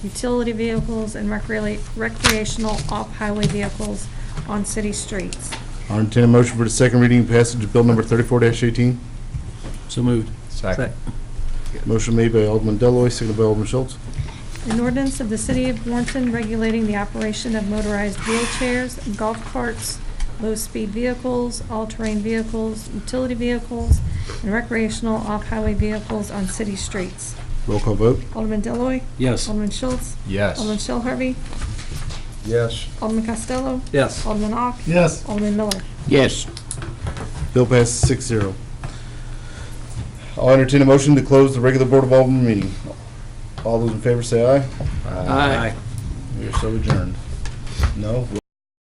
utility vehicles, and recre- recreational off-highway vehicles on city streets. I'll entertain a motion for the second reading and passage of Bill number 34-18. So moved. Second. Motion made by Alderman Deloy, seconded by Alderman Schultz. An ordinance of the City of Warrenton regulating the operation of motorized wheelchairs, golf carts, low-speed vehicles, all-terrain vehicles, utility vehicles, and recreational off-highway vehicles on city streets. Roll call vote. Alderman Deloy, Yes. Alderman Schultz, Alderman Yes. Shell Harvey, Yes. Alderman Costello, Yes. Alderman Ock, Yes. Alderman Miller. Yes. Bill passes six zero. I'll entertain a motion to close the regular Board of Alderman meeting. All those in favor say aye. Aye. We are so adjourned. No?